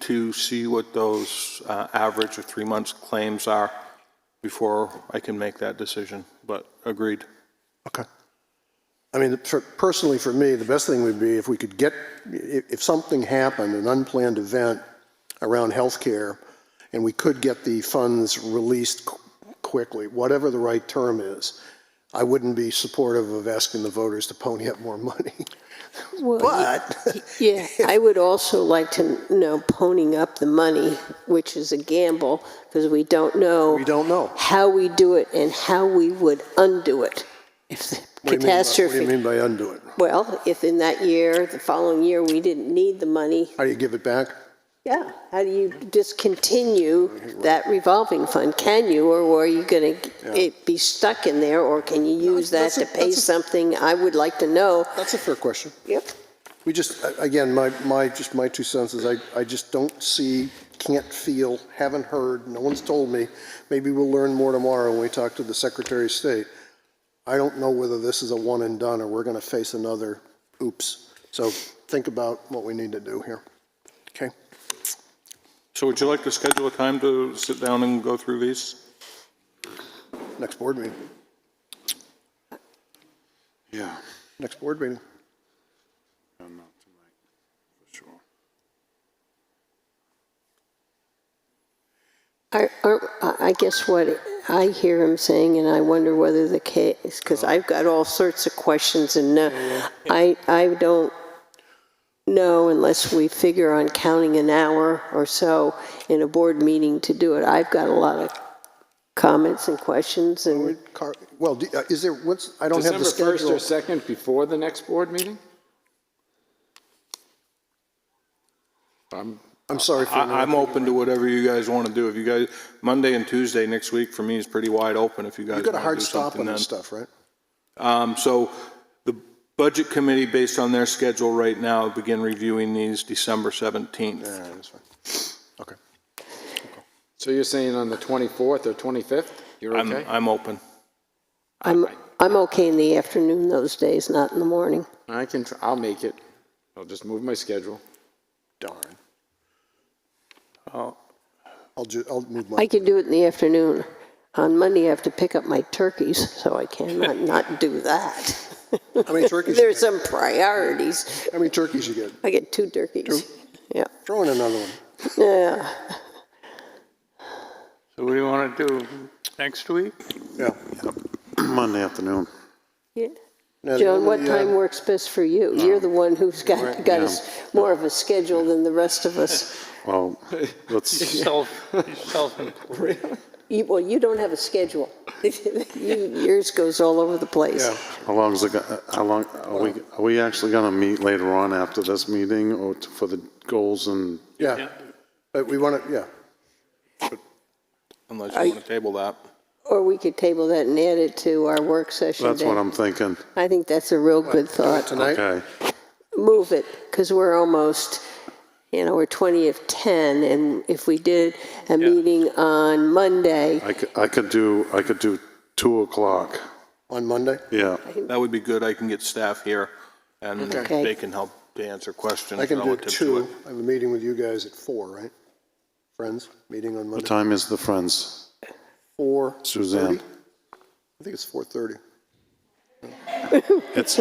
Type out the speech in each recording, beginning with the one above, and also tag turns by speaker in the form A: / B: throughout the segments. A: to see what those uh, average or three months claims are before I can make that decision, but agreed.
B: Okay. I mean, for- personally, for me, the best thing would be if we could get, if, if something happened, an unplanned event around healthcare, and we could get the funds released qu- quickly, whatever the right term is, I wouldn't be supportive of asking the voters to pony up more money. But,
C: Yeah, I would also like to know ponying up the money, which is a gamble, because we don't know.
B: We don't know.
C: How we do it and how we would undo it if the
B: what do you mean by- What do you
C: catastrophe.
B: mean by undo it?
C: Well, if in that year, the following year, we didn't need the money,
B: How do you give it back?
C: yeah, how do you discontinue that revolving fund? Can you, or are you going to be stuck in there, or can you use that
B: that's a-
C: to pay
B: that's a-
C: something? I would like to know.
B: That's a fair question.
C: Yep.
B: We just, a- again, my, my, just my two cents is I, I just don't see, can't feel, haven't heard, no one's told me. Maybe we'll learn more tomorrow when we talk to the Secretary of State. I don't know whether this is a one and done or we're going to face another oops. So think about what we need to do here. Okay?
A: So would you like to schedule a time to sit down and go through these?
B: Next board meeting.
D: Yeah,
B: Next board meeting.
D: I'm not tonight, for sure.
C: I, I I guess what I hear him saying, and I wonder whether the case, because I've got all sorts of questions, and uh, I, I don't know unless we figure on counting an hour or so in a board meeting to do it. I've got a lot of comments and questions, and
B: Car- Well, do- uh, is there, what's, I don't have
E: December
B: the schedule.
E: 1st or 2nd before the next board meeting? I'm,
B: I'm sorry for.
A: I, I'm open to whatever you guys want to do. If you guys, Monday and Tuesday next week for me is pretty wide open if you guys
B: You've
A: want to do
B: got a hard stop
A: something
B: on
A: then.
B: this stuff, right?
A: Um, So the Budget Committee, based on their schedule right now, begin reviewing these December 17th.
B: Yeah, that's fine. Okay.
E: so you're saying on the 24th or 25th? You're
A: I'm,
E: okay?
A: I'm open.
C: I'm, I'm okay in the afternoon those days, not in the morning.
E: I can, tr- I'll make it. I'll just move my schedule.
B: Darn. I'll ju, I'll move
C: I
B: my,
C: can do it in the afternoon. On Monday, I have to pick up my turkeys, so I cannot not do that.
B: how many turkeys, you get?
C: There's some priorities.
B: how many turkeys you get?
C: I get two turkeys. Yeah,
B: Throw in another one.
C: yeah.
F: So what do you want to do next week?
B: Yeah.
D: Monday afternoon.
C: Yeah.
B: Now, the
C: Joan, what
B: only, uh,
C: time works best for you? You're the one who's got, got us more of a schedule than the rest of us.
D: Well, let's,
F: Self, self-employed.
C: You, well, you don't have a schedule. You- Yours goes all over the place.
B: Yeah.
D: how long is it, go- how long, are we, are we actually going to meet later on after this meeting or t- for the goals and?
B: Yeah. But we want to, yeah.
A: Unless you want to table that.
C: Or we could table that and add it to our work session
D: That's what
C: day.
D: I'm thinking.
C: I think that's a real good thought.
B: Tonight?
D: Okay,
C: move it, because we're almost, you know, we're 20 of 10, and if we did a meeting on Monday,
D: I could, I could do, I could do 2 o'clock.
B: On Monday?
D: Yeah,
A: That would be good. I can get staff here and
C: Okay.
A: they can help to answer questions
B: I can do
A: relative to it.
B: two. I have a meeting with you guys at four, right? Friends, meeting on
D: what
B: Monday.
D: time is the Friends?
B: Four.
D: Suzanne?
B: I think it's 4:30.
D: It's,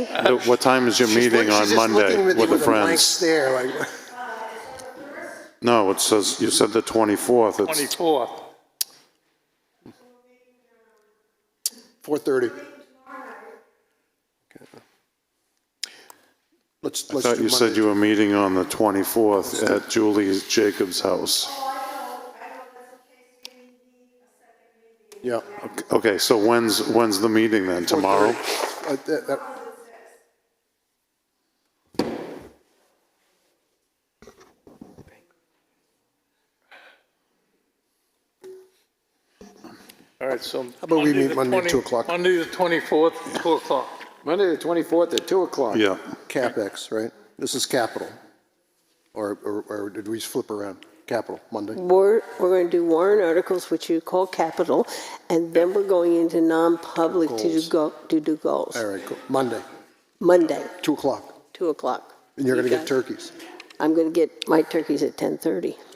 D: what time is your meeting on Monday with the Friends? No, it says, you said the 24th. It's
F: 24th.
B: 4:30. Okay. Let's, let's
D: I
B: do
D: thought
B: Monday.
D: you said you were meeting on the 24th at Julie Jacobs' house.
B: Yeah.
D: Okay, so when's, when's the meeting then? Tomorrow?
B: Uh, that- that-
F: All right, so.
B: about we meet
F: the
B: Monday at
F: 20
B: two o'clock?
F: Monday, the 24th, 2 o'clock.
E: Monday, the 24th at 2 o'clock.
D: Yeah.
B: CapEx, right? This is capital. Or, or, or did we flip around? Capital, Monday?
C: we're, we're going to do warrant articles, which you call capital, and then we're going into non-public to do
B: Goals.
C: go, to do goals.
B: All right, cool. Monday,
C: Monday,
B: 2 o'clock.
C: 2 o'clock.
B: And you're going
C: You
B: to get
C: got it.
B: turkeys.
C: I'm going to get my turkeys at 10:30.